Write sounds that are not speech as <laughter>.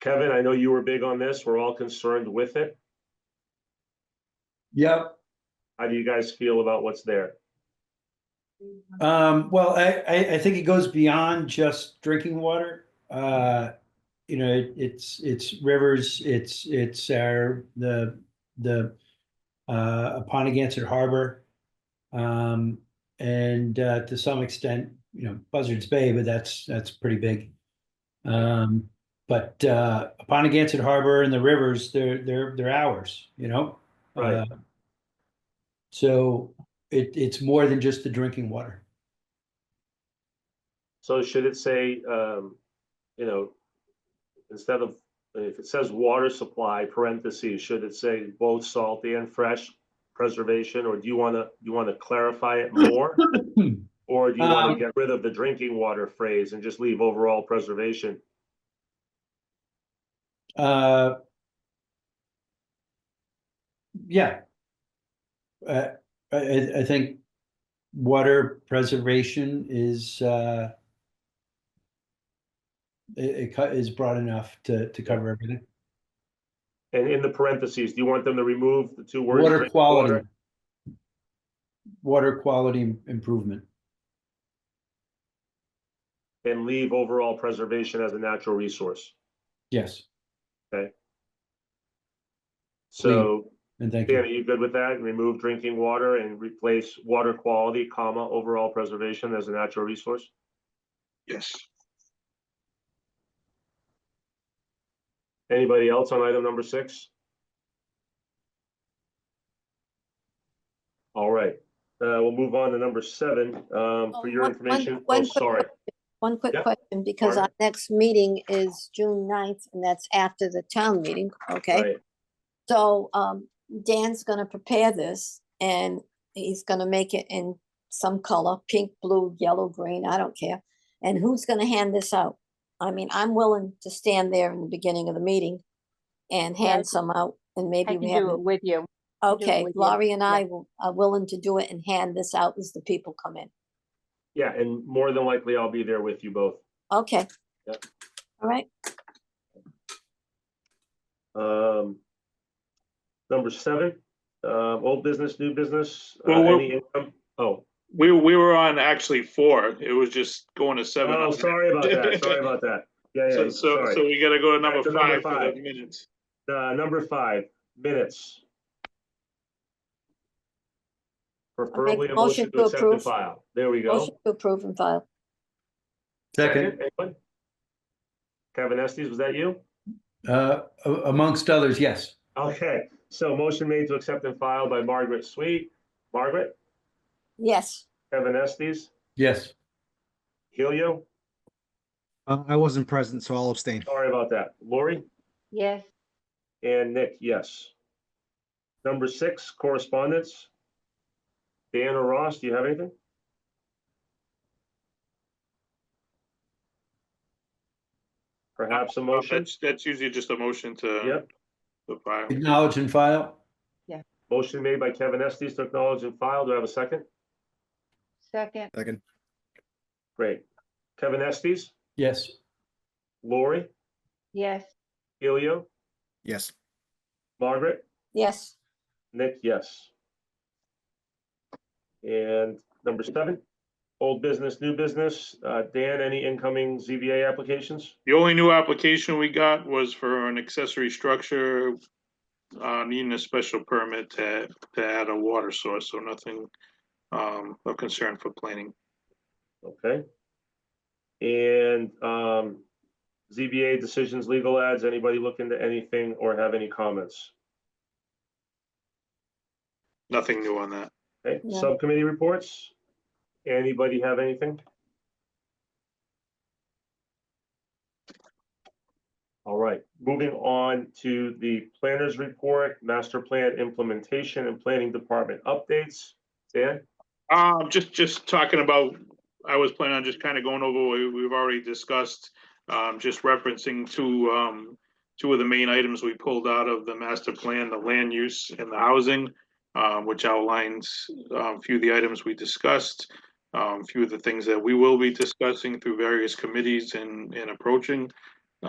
Kevin, I know you were big on this. We're all concerned with it. Yep, How do you guys feel about what's there? um, well, I, I, I think it goes beyond just drinking water. Uh, you know, it- it's, it's rivers, it's, it's our, the, the, uh, Uponiganset Harbor. Um, and, uh, to some extent, you know, Buzzards Bay, but that's, that's pretty big. Um, but, uh, Uponiganset Harbor and the rivers, they're, they're, they're ours, you know? Right. Uh, So it, it's more than just the drinking water. So should it say, um, you know, instead of, if it says water supply parentheses, should it say both salty and fresh preservation? Or do you want to, you want to clarify it more? Hmm. Or do you want Um, to get rid of the drinking water phrase and just leave overall preservation? Uh. Yeah. Uh, I, I, I think water preservation is, uh. It, it cut, is broad enough to, to cover everything. And in the parentheses, do you want them to remove the two words? Water drinking quality. Water quality improvement. And leave overall preservation as a natural resource? Yes, So and thank Dan, are you. you good with that? Remove drinking water and replace water quality, comma, overall preservation as a natural resource? Yes, Anybody else on item number six? All right, uh, we'll move on to number seven, um, Oh, for your one- one- information. Oh, one quick sorry. One quick Yeah, question, because our pardon? next meeting is June 9th, and that's after the town meeting, okay? Right. So um, Dan's gonna prepare this, and he's gonna make it in some color, pink, blue, yellow, green, I don't care. And who's gonna hand this out? I mean, I'm willing to stand there in the beginning of the meeting and Yeah, I hand can- some out, and I maybe can we do have, it with you. do it okay, with you, Laurie and yeah. I will- are willing to do it and hand this out as the people come in. Yeah, and more than likely I'll be there with you both. Okay. Yep. All right, Um, number seven, um, old business, new business, uh, Well, we're- any income? Oh, We, we were on actually four. It was just going to seven. oh, sorry about <laughs> that, sorry about that. Yeah, So, yeah, so, so sorry. we gotta go to number Back to number five for five. the minutes. Uh, number five, minutes. Preferably a motion to accept and approve. file. There we motion go. to approve and file. Second, Anyone? Kevin Estes, was that you? uh, a- amongst others, yes. Okay, so motion made to accept and file by Margaret Sweet. Margaret, Yes, Kevin Estes, Yes, Helio, Uh, I wasn't present, so I'll abstain. sorry about that. Lori? Yes, And Nick, yes. Number six, correspondence. Dan or Ross, do you have anything? Perhaps a motion? That's, that's usually just a motion to. Yep. The file. acknowledge and file. Motion made by Kevin Estes to acknowledge and file. Do I have a second? second, Second. Great. Kevin Estes, Yes, Lori, yes, Helio, Yes. Margaret, yes, Nick, yes. And number seven, old business, new business. Uh, Dan, any incoming ZBA applications? The only new application we got was for an accessory structure. Uh, needing a special permit to, to add a water source, so nothing, um, of concern for planning. Okay. And um, ZBA decisions, legal ads, anybody look into anything or have any comments? Nothing new on that. Okay, No. subcommittee reports? Anybody have anything? All right, moving on to the planners report, master plan implementation and planning department updates. Dan? Um, just, just talking about, I was planning on just kind of going over what we- we've already discussed. Um, just referencing two, um, two of the main items we pulled out of the master plan, the land use and the housing. Uh, which outlines, um, a few of the items we discussed. Um, a few of the things that we will be discussing through various committees and, and approaching.